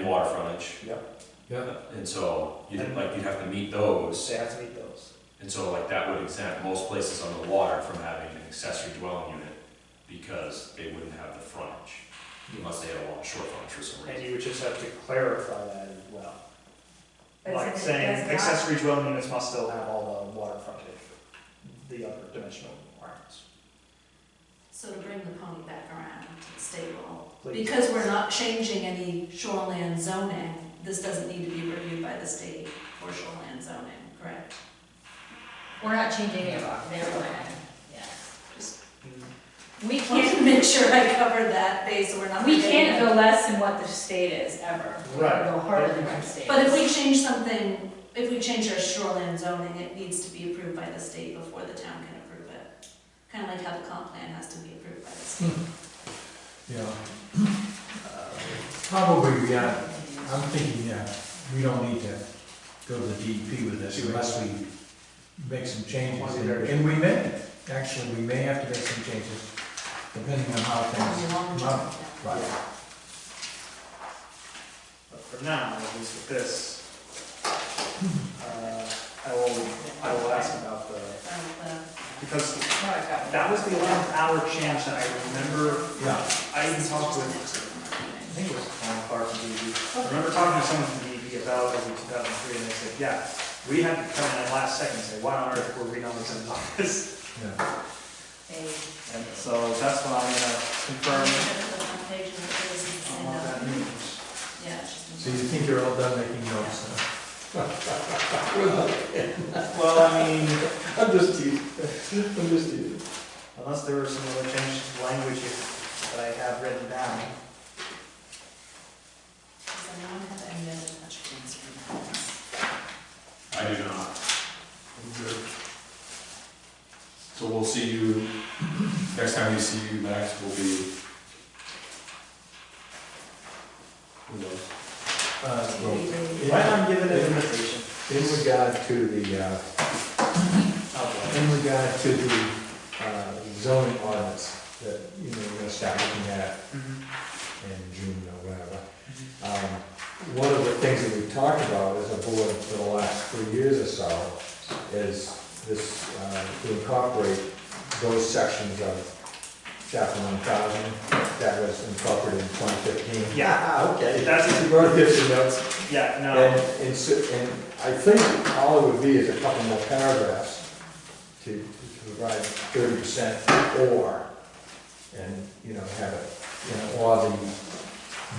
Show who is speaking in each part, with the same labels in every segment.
Speaker 1: mileage,
Speaker 2: yeah,
Speaker 1: and so, you like, you'd have to meet those.
Speaker 3: They have to meet those.
Speaker 1: And so like that would exempt most places on the water from having an accessory dwelling unit because they wouldn't have the frontage unless they had a lot of short frontage for some
Speaker 3: And
Speaker 1: reason.
Speaker 3: you would just have to clarify that as well.
Speaker 4: But
Speaker 3: Like
Speaker 4: since it
Speaker 3: saying
Speaker 4: does not-
Speaker 3: accessory dwelling units must still have all the water frontage, the other dimensional requirements.
Speaker 4: So to bring the pony back around to the state law,
Speaker 3: Please.
Speaker 4: because we're not changing any shoreland zoning, this doesn't need to be reviewed by the state for shoreland zoning, correct?
Speaker 5: We're not changing their, their plan, yes.
Speaker 3: Mm,
Speaker 5: We
Speaker 4: Want to
Speaker 5: can't,
Speaker 4: make sure I covered that base, so we're not.
Speaker 5: we
Speaker 4: forgetting
Speaker 5: can't
Speaker 4: it.
Speaker 5: go less than what the state is ever. We
Speaker 3: Right.
Speaker 5: can go harder than what the state.
Speaker 4: But if
Speaker 5: is.
Speaker 4: we change something, if we change our shoreland zoning, it needs to be approved by the state before the town can approve it. Kind of like how the comp plan has to be approved by the state.
Speaker 2: yeah. Uh, Probably, yeah, I'm thinking, yeah, we don't need to go to the DEP with this unless we make some changes. And we may, actually, we may have to make some changes depending on how
Speaker 4: That'll
Speaker 2: things
Speaker 4: be long
Speaker 2: come out.
Speaker 4: term, yeah.
Speaker 2: Right,
Speaker 3: But for now, at least with this, uh, I will, I will ask about the,
Speaker 4: Of the-
Speaker 3: because
Speaker 5: No, I've got it.
Speaker 3: that was the eleventh hour chance that I remember,
Speaker 2: yeah.
Speaker 3: I even talked with I think it was Tom Clark from DEP. I remember talking to someone from DEP about it in 2003, and they said, yeah, we had to come in at last second and say, why on earth were we not in this?
Speaker 2: Yeah,
Speaker 5: They-
Speaker 3: And so that's why I'm gonna confirm.
Speaker 2: Oh,
Speaker 3: all that
Speaker 4: Yeah,
Speaker 3: news.
Speaker 4: it's just-
Speaker 2: so you think you're all done making notes now?
Speaker 3: Well, I mean,
Speaker 6: I'm just teasing. I'm just teasing.
Speaker 3: unless there were some other changes to language that I have written down.
Speaker 4: Does anyone have any other questions or comments?
Speaker 1: I do not. So we'll see you, next time we see you, Max, will be. Who knows?
Speaker 2: Uh,
Speaker 3: Why
Speaker 2: in-
Speaker 3: not give it an invitation?
Speaker 2: In regard to the, uh,
Speaker 3: Oh,
Speaker 2: in regard to the uh, zoning ordinance that, you know, we're gonna start looking at
Speaker 3: boy. Mhm.
Speaker 2: in June or whatever. Um, One of the things that we've talked about as a board for the last three years or so is this, uh, to incorporate those sections of chapter one thousand that was incorporated in twenty fifteen.
Speaker 3: Yeah.
Speaker 2: Okay.
Speaker 3: That's-
Speaker 2: You wrote this in notes.
Speaker 3: Yeah,
Speaker 2: And,
Speaker 3: no,
Speaker 2: and so- and I think all it would be is a couple more paragraphs to to provide thirty percent or, and, you know, have it, you know, or the,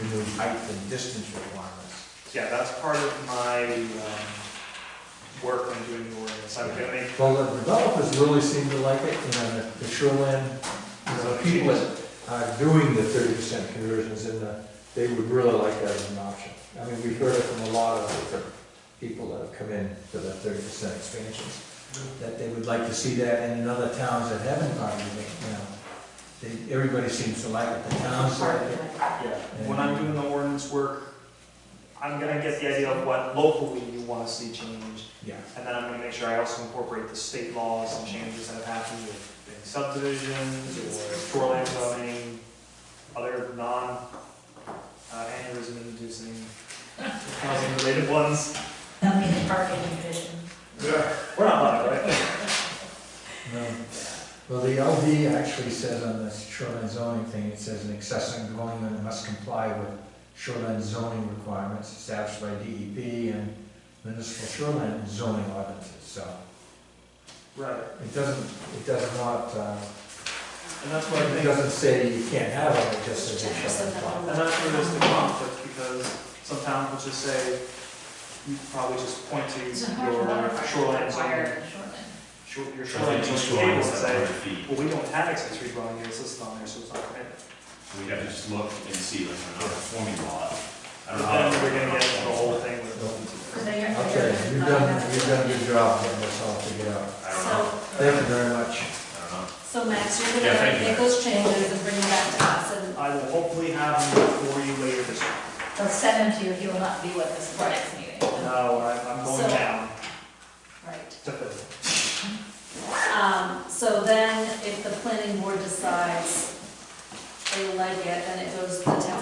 Speaker 2: the new height and distance requirements.
Speaker 3: yeah, that's part of my, um, work when doing the ordinance. I'm gonna make
Speaker 2: Well, the developers really seem to like it, you know, the- the shoreline, you know, people that are doing the thirty percent conversions in the, they would really like that as an option. I mean, we've heard it from a lot of different people that have come in for the thirty percent expansions. that they would like to see that, and in other towns that haven't gone, you know, they, everybody seems to like it, the towns like it.
Speaker 3: Yeah, when I'm doing the ordinance work, I'm gonna get the idea of what locally you wanna see changed,
Speaker 2: Yeah,
Speaker 3: and then I'm gonna make sure I also incorporate the state laws and changes that have happened with big subdivisions, or shoreline zoning, other non, uh, aneurysm inducing housing related ones.
Speaker 5: That'll be the parking division.
Speaker 3: We're not allowed, right?
Speaker 2: no. Um, Well, the LD actually says on this shoreline zoning thing, it says an accessory dwelling unit must comply with shoreline zoning requirements established by DEP and municipal shoreline zoning ordinances, so
Speaker 3: Right,
Speaker 2: it doesn't, it does not, uh,
Speaker 3: and that's what I
Speaker 2: it
Speaker 3: think.
Speaker 2: doesn't say you can't have it, it just says
Speaker 4: Check
Speaker 2: it shall
Speaker 4: yourself
Speaker 2: comply.
Speaker 4: out.
Speaker 3: And that's where there's the conflict, because some towns will just say, you can probably just point to
Speaker 5: It's a hard water
Speaker 3: your shoreline zoning
Speaker 5: required shoreline.
Speaker 3: Sure, your
Speaker 1: I
Speaker 3: shoreline
Speaker 1: think each
Speaker 3: zone
Speaker 1: one
Speaker 3: table
Speaker 1: is like
Speaker 3: and say,
Speaker 1: 100 feet.
Speaker 3: well, we don't have accessory dwelling units listed on there, so it's not permitted.
Speaker 1: We have to just look and see, like, we're not a forming lot. I
Speaker 3: And
Speaker 1: don't know how-
Speaker 3: then we're gonna get into the whole thing with.
Speaker 5: Because they got-
Speaker 2: Okay, you've done, you've done a good job getting this all figured out.
Speaker 1: I don't know,
Speaker 2: Thank you very much.
Speaker 1: I don't know.
Speaker 4: So Max, you're
Speaker 1: Yeah,
Speaker 4: gonna
Speaker 1: thank you.
Speaker 4: make those changes and bring them back to us, and
Speaker 3: I will hopefully have them for you later this week.
Speaker 5: They'll send them to you, he will not be with us for the next meeting.
Speaker 3: No, I- I'm going
Speaker 4: So-
Speaker 3: down
Speaker 4: Right.
Speaker 3: to Philly.
Speaker 4: Um, so then if the planning board decides they like it, then it goes to the town